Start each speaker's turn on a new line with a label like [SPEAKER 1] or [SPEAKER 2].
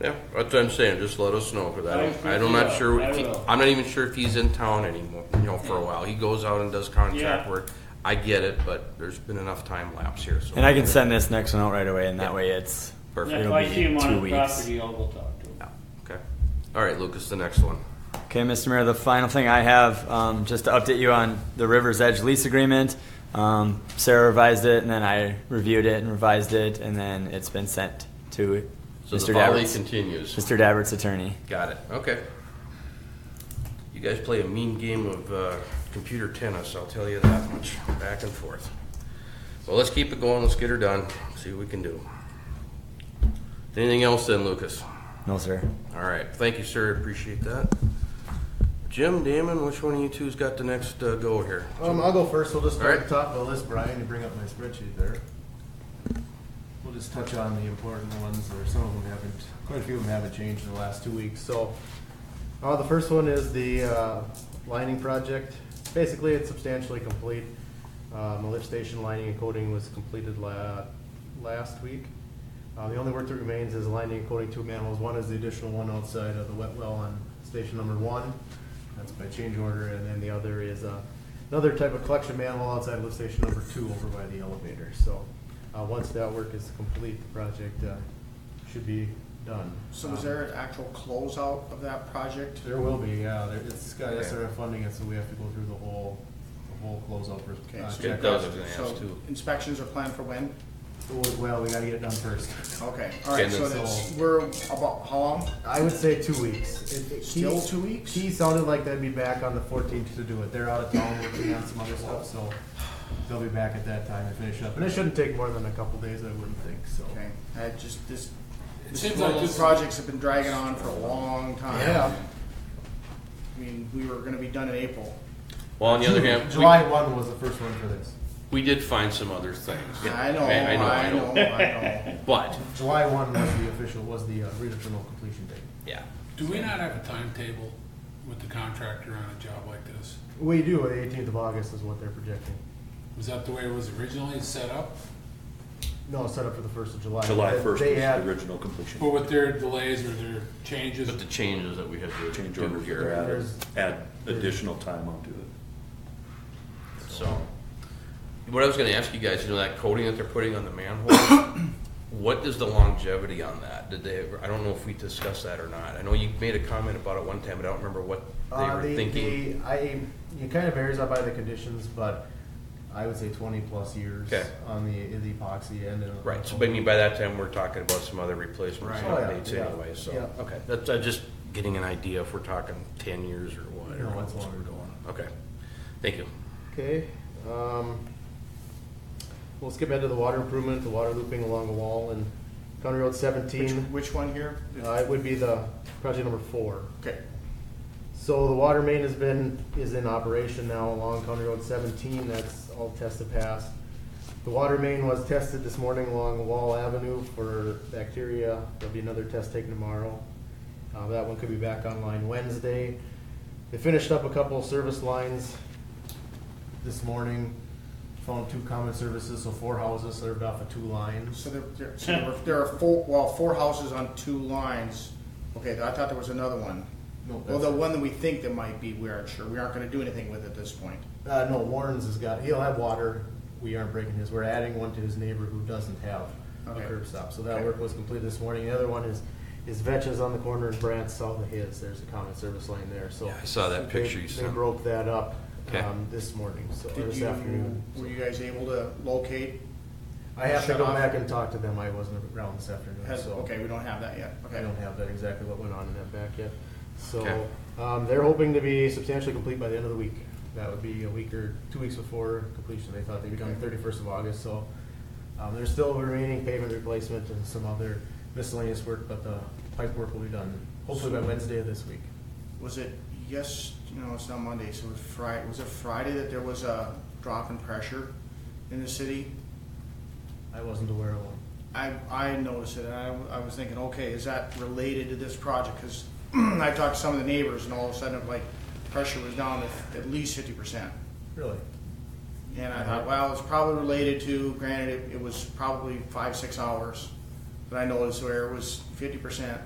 [SPEAKER 1] Yeah, that's what I'm saying, just let us know, cause I don't,
[SPEAKER 2] I
[SPEAKER 1] I'm not sure,
[SPEAKER 2] will, I
[SPEAKER 1] if he-
[SPEAKER 2] will.
[SPEAKER 1] I'm not even sure if he's in town anymore, you know, for a while, he goes out and does contract
[SPEAKER 2] Yeah.
[SPEAKER 1] work. I get it, but there's been enough time lapse here, so.
[SPEAKER 3] And I can send this next one out right away, and that way it's
[SPEAKER 1] Perfect.
[SPEAKER 2] Yeah, If
[SPEAKER 3] It'll
[SPEAKER 2] I
[SPEAKER 3] be
[SPEAKER 2] see him
[SPEAKER 3] two
[SPEAKER 2] on the
[SPEAKER 3] weeks.
[SPEAKER 2] property, I'll go talk to him.
[SPEAKER 1] Yeah, Okay, alright, Lucas, the next one.
[SPEAKER 3] Okay, Mr. Mayor, the final thing I have, um, just to update you on the River's Edge lease agreement. Um, Sarah revised it, and then I reviewed it and revised it, and then it's been sent to
[SPEAKER 1] So the
[SPEAKER 3] Mr.
[SPEAKER 1] volley
[SPEAKER 3] Dabbert's,
[SPEAKER 1] continues,
[SPEAKER 3] Mr. Dabbert's attorney.
[SPEAKER 1] got it, okay. You guys play a mean game of, uh, computer tennis, I'll tell you that much, back and forth. Well, let's keep it going, let's get her done, see what we can do. Anything else then, Lucas?
[SPEAKER 3] No, sir.
[SPEAKER 1] All right, thank you, sir, appreciate that. Jim, Damon, which one of you two's got the next uh, go here?
[SPEAKER 4] Um, I'll go first. We'll just
[SPEAKER 1] All
[SPEAKER 4] start
[SPEAKER 1] right.
[SPEAKER 4] at the top of the list, Brian. You bring up my spreadsheet there. We'll just touch on the important ones, or some of them haven't, quite a few of them haven't changed in the last two weeks. So, uh, the first one is the, uh, lining project. Basically, it's substantially complete. Um, the lift station lining and coating was completed la- last week. Uh, the only work that remains is lining and coating two manholes. One is the additional one outside of the wet well on station number one. That's by change order, and then the other is, uh, another type of collection manhole outside of lift station number two over by the elevator. So, uh, once that work is complete, the project, uh, should be done.
[SPEAKER 5] So is
[SPEAKER 4] Um,
[SPEAKER 5] there an actual closeout of that project?
[SPEAKER 4] there will be, yeah, there, it's got
[SPEAKER 1] Okay.
[SPEAKER 4] SRF funding, and so we have to go through the whole, the whole closeout for,
[SPEAKER 5] Okay,
[SPEAKER 4] uh,
[SPEAKER 5] so-
[SPEAKER 4] check.
[SPEAKER 1] that was gonna ask
[SPEAKER 5] So
[SPEAKER 1] too.
[SPEAKER 5] Inspections are planned for when?
[SPEAKER 4] Oh, Well, we gotta get it done first.
[SPEAKER 5] Okay, all right,
[SPEAKER 1] Okay,
[SPEAKER 5] so
[SPEAKER 1] then-
[SPEAKER 5] that's, we're about, how long?
[SPEAKER 4] I would say two weeks. It- it- he-
[SPEAKER 5] Still two weeks?
[SPEAKER 4] He sounded like they'd be back on the fourteenth to do it, they're out of town working on some other stuff, so they'll be back at that time to finish up, and it shouldn't take more than a couple days, I wouldn't think, so.
[SPEAKER 5] Okay, I just, this,
[SPEAKER 6] seems
[SPEAKER 5] this,
[SPEAKER 6] like
[SPEAKER 5] all these
[SPEAKER 6] this-
[SPEAKER 5] projects have been dragging on for a long time.
[SPEAKER 4] Yeah,
[SPEAKER 5] I mean, we were gonna be done in April.
[SPEAKER 1] Well, on the other hand, we-
[SPEAKER 4] July one was the first one for this,
[SPEAKER 6] We did find some other things.
[SPEAKER 5] I know,
[SPEAKER 1] I- I know, I
[SPEAKER 5] I know, I know.
[SPEAKER 1] but,
[SPEAKER 4] July one was the official, was the uh, redeterminal completion date.
[SPEAKER 1] yeah,
[SPEAKER 6] Do we not have a timetable with the contractor on a job like this?
[SPEAKER 4] We do, the eighteenth of August is what they're projecting.
[SPEAKER 6] Was that the way it was originally set up?
[SPEAKER 4] No, set up for the first of July.
[SPEAKER 7] July
[SPEAKER 4] They-
[SPEAKER 7] first was
[SPEAKER 4] They
[SPEAKER 7] the
[SPEAKER 4] had,
[SPEAKER 7] original completion.
[SPEAKER 6] But with their delays or their changes,
[SPEAKER 1] but the changes that we had to
[SPEAKER 7] Change
[SPEAKER 1] do
[SPEAKER 7] order
[SPEAKER 1] here,
[SPEAKER 7] here,
[SPEAKER 4] There's-
[SPEAKER 7] add, add additional time onto it.
[SPEAKER 1] so. What I was gonna ask you guys, you know, that coating that they're putting on the manhole, what is the longevity on that? Did they, I don't know if we discussed that or not. I know you made a comment about it one time, but I don't remember what they
[SPEAKER 4] uh,
[SPEAKER 1] were
[SPEAKER 4] the,
[SPEAKER 1] thinking.
[SPEAKER 4] the, I, it kind of varies out by the conditions, but I would say twenty plus years
[SPEAKER 1] Okay.
[SPEAKER 4] on the, the epoxy end. and-
[SPEAKER 1] Right, so I mean, by that time, we're talking about some other replacements and
[SPEAKER 4] Right. Oh, yeah,
[SPEAKER 1] updates
[SPEAKER 4] yeah,
[SPEAKER 1] anyway, so,
[SPEAKER 4] yeah.
[SPEAKER 1] okay. That's, I'm just getting an idea if we're talking ten years or what. or
[SPEAKER 4] No, it's
[SPEAKER 1] what
[SPEAKER 4] longer.
[SPEAKER 1] we're going. Okay, thank you.
[SPEAKER 4] Okay, um, we'll skip ahead to the water improvement, the water looping along the wall and County Road seventeen.
[SPEAKER 5] Which one here?
[SPEAKER 4] Uh, it would be the project number four.
[SPEAKER 5] Okay,
[SPEAKER 4] So the water main has been, is in operation now along County Road seventeen, that's all tested pass. The water main was tested this morning along Wall Avenue for bacteria, there'll be another test taken tomorrow. Uh, that one could be back online Wednesday. They finished up a couple of service lines this morning, found two common services, so four houses served off of two lines.
[SPEAKER 5] so there, there, so there were- there are four, well, four houses on two lines. Okay, I thought there was another one.
[SPEAKER 4] No,
[SPEAKER 5] Well,
[SPEAKER 4] that's-
[SPEAKER 5] the one that we think that might be, we aren't sure, we aren't gonna do anything with at this point.
[SPEAKER 4] Uh, no, Warren's has got, he'll have water, we aren't breaking his, we're adding one to his neighbor who doesn't have a
[SPEAKER 5] Okay.
[SPEAKER 4] curb stop, so that
[SPEAKER 5] Okay.
[SPEAKER 4] work was completed this morning, the other one is, is Vetch's on the corner and Brandt's south of his, there's a common service lane there, so.
[SPEAKER 1] Yeah, I saw that
[SPEAKER 4] they-
[SPEAKER 1] picture you
[SPEAKER 4] They
[SPEAKER 1] sent.
[SPEAKER 4] broke that up,
[SPEAKER 1] Okay.
[SPEAKER 4] um, this morning, so, or
[SPEAKER 5] Did
[SPEAKER 4] this
[SPEAKER 5] you,
[SPEAKER 4] afternoon.
[SPEAKER 5] were you guys able to locate?
[SPEAKER 4] I have to
[SPEAKER 5] shut
[SPEAKER 4] go
[SPEAKER 5] off?
[SPEAKER 4] back and talk to them, I wasn't around this afternoon,
[SPEAKER 5] Has,
[SPEAKER 4] so.
[SPEAKER 5] okay, we don't have that yet,
[SPEAKER 4] I
[SPEAKER 5] okay.
[SPEAKER 4] don't have that exactly what went on in that back yet,
[SPEAKER 1] Okay.
[SPEAKER 4] so, um, they're hoping to be substantially complete by the end of the week. That would be a week or two weeks before completion, they thought they'd be done thirty-first of August, so. Um, there's still remaining pavement replacement and some other miscellaneous work, but the pipe work will be done hopefully by Wednesday of this week.
[SPEAKER 5] Was it, yes, no, it's not Monday, so it was Friday, was it Friday that there was a drop in pressure in the city?
[SPEAKER 4] I wasn't aware of one.
[SPEAKER 5] I, I noticed it, and I, I was thinking, okay, is that related to this project? Because I talked to some of the neighbors, and all of a sudden, like, pressure was down at, at least fifty percent.
[SPEAKER 4] Really?
[SPEAKER 5] And I thought, well, it's probably related to, granted, it, it was probably five, six hours that I noticed where it was fifty percent